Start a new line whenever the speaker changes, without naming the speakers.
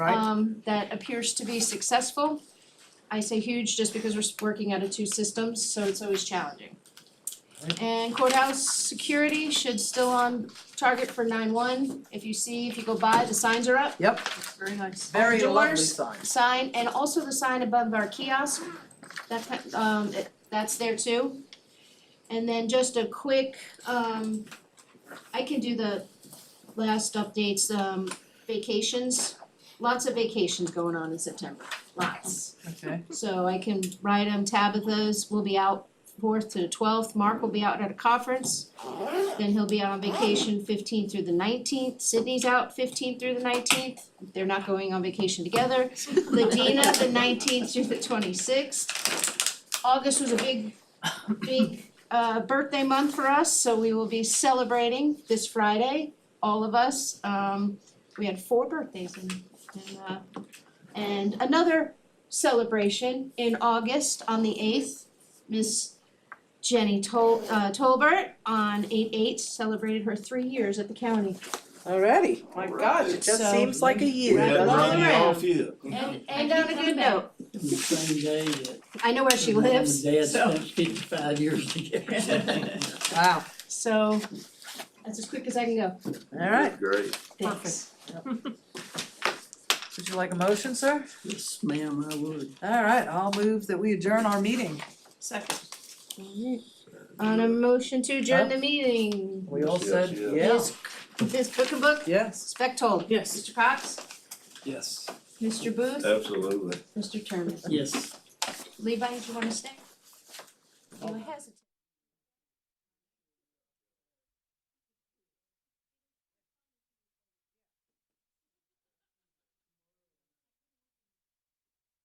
Right.
um, that appears to be successful. I say huge just because we're s- working out of two systems, so it's always challenging.
Right.
And courthouse security should still on target for nine one. If you see, if you go by, the signs are up,
Yep,
Very nice.
very lovely
Doors.
signs.
sign, and also the sign above our kiosk. That ki- um it- that's there too. And then just a quick um I can do the last updates, um vacations. Lots of vacations going on in September, lots.
Okay.
So I can write them, Tabitha's will be out fourth to the twelfth, Mark will be out at a conference. Then he'll be out on vacation fifteenth through the nineteenth, Sydney's out fifteenth through the nineteenth, they're not going on vacation together. Ladina the nineteenth through the twenty-sixth. August was a big, big uh birthday month for us, so we will be celebrating this Friday, all of us. Um we had four birthdays and and uh and another celebration in August on the eighth. Miss Jenny Tol- uh Tolbert on eight eight celebrated her three years at the county.
Already, my gosh, it just
So-
seems like a
We
year,
had
Right
to
doesn't
along
it?
run you
around.
off you.
And and on a good note,
the same day that.
I know where she
her mom and
lives,
Dad
so-
spent fifty-five years together.
Wow,
So that's as quick as I can go.
alright,
Great.
Thanks.
would you like a motion, sir?
Yes, ma'am, I would.
Alright, I'll move that we adjourn our meeting.
Second.
On a motion to adjourn the meeting,
We all
Yes,
said,
yes.
yeah,
Yes. Ms. Book and Book,
yes.
Spectol.
Yes.
Mr. Cox,
Yes.
Mr. Booth,
Absolutely.
Mr. Turner.
Yes.
Levi, do you wanna stay? You hesitate.